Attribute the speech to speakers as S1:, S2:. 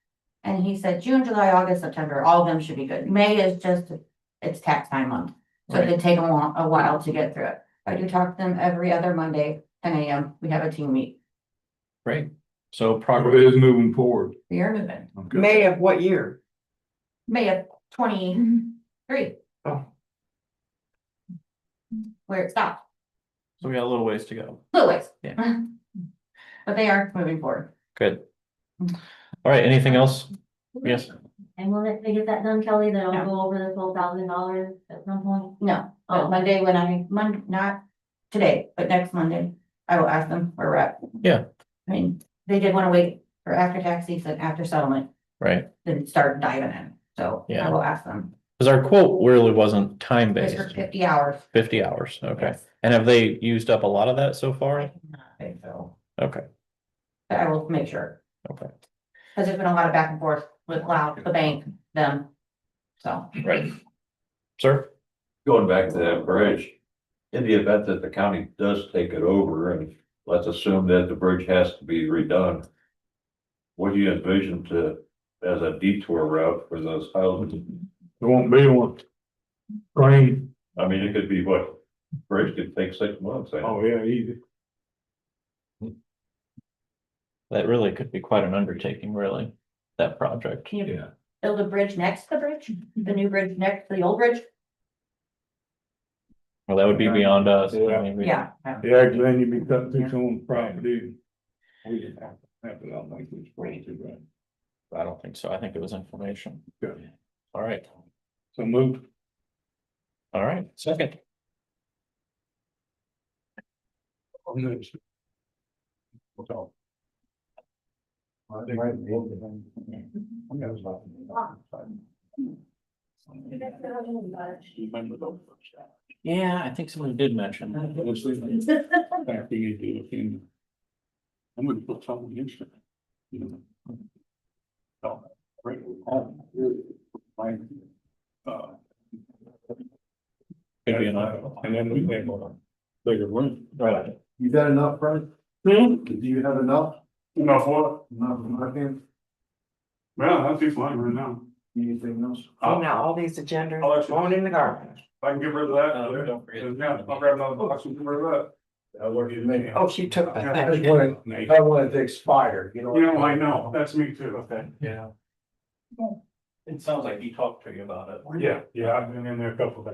S1: and he said June, July, August, September, all of them should be good. May is just, it's tax time month. So it could take a while, a while to get through it. I do talk to them every other Monday, ten AM, we have a team meet.
S2: Great. So
S3: It
S2: progress,
S3: is moving forward.
S1: We are moving.
S3: Okay.
S4: May of what year?
S1: May of twenty-three.
S4: Oh.
S1: Where it stopped,
S2: so we got a little ways to go.
S1: little ways. But they are moving forward.
S2: Good.
S1: Mm-hmm.
S2: All right, anything else? Yes.
S5: And when they- they get that done, Kelly, then
S1: Yeah.
S5: I'll go over the twelve thousand dollars at some point.
S1: No,
S5: Oh.
S1: but Monday when I, Mon, not today, but next Monday, I will ask them where we're at.
S2: Yeah.
S1: I mean, they did wanna wait for after tax season, after settlement,
S2: Right,
S1: then start diving in, so I
S2: Yeah.
S1: will ask them.
S2: because our quote really wasn't time
S1: It's
S2: based,
S1: for fifty hours.
S2: fifty hours, okay.
S1: Yes.
S2: And have they used up a lot of that so
S1: I
S2: far?
S1: do not think so,
S2: Okay,
S1: But I will make sure,
S2: okay,
S1: cause there's been a lot of back and forth with Cloud, the bank, them. So,
S2: right. Sir?
S6: Going back to that bridge, in the event that the county does take it over and let's assume that the bridge has to be redone. What do you envision to, as a detour route for those houses?
S3: There won't be one. Rain,
S6: I mean, it could be what, bridge could take six months. I-
S3: oh yeah, easy.
S2: That really could be quite an undertaking, really, that project.
S1: can you
S3: Yeah.
S1: build a bridge next to the bridge, the new bridge next to the old bridge?
S2: Well, that would be beyond us. I
S3: Yeah.
S2: mean, we-
S1: Yeah.
S3: Yeah, 'cause then you'd be cutting through someone's property. We didn't have to have it on like this way to run.
S2: I don't think so. I think it was information.
S3: Good.
S2: All right,
S3: So move.
S2: all right, second.
S3: on this. So. Remember those first time.
S2: Yeah, I think someone did mention
S3: I
S2: that.
S3: was thinking, back when you do a funeral. I'm gonna put something in it. you know. So, right, um, really, my, uh,
S2: Could be an option.
S3: And then we have a bigger room.
S2: Right.
S7: You got enough, Brent?
S3: Hmm?
S7: Do you have enough?
S3: Enough what?
S7: Enough in my hand?
S3: Well, that'd be fine right now.
S7: Anything else?
S4: Oh, now all these agendas
S3: I'll let you-
S4: going in the garbage.
S3: If I can get rid of
S7: Oh,
S2: Uh, don't forget.
S3: yeah, I'll grab another box and get rid of that.
S7: That worked with me.
S4: Oh, she took the
S7: I just
S4: thing.
S7: wanted, I don't want it to expire, you know.
S3: that's me too. Okay.
S2: Yeah. It sounds like he talked to you about it.
S3: Yeah, yeah, I've been in there a couple of times.